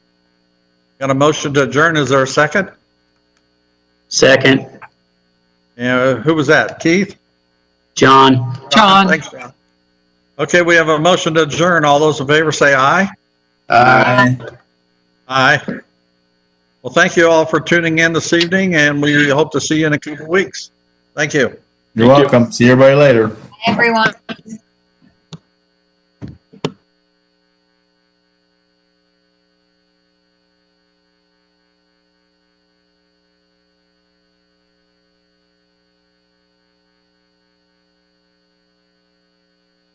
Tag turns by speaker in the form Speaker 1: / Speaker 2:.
Speaker 1: Got a motion to adjourn. Is there a second?
Speaker 2: Second,
Speaker 1: Uh, who was that? Keith?
Speaker 2: John.
Speaker 3: John,
Speaker 1: Thanks, John. Okay, we have a motion to adjourn. All those in favor say aye.
Speaker 4: Aye.
Speaker 1: Aye. Well, thank you all for tuning in this evening, and we hope to see you in a couple of weeks. Thank you.
Speaker 4: You're welcome. See everybody later.
Speaker 5: everyone.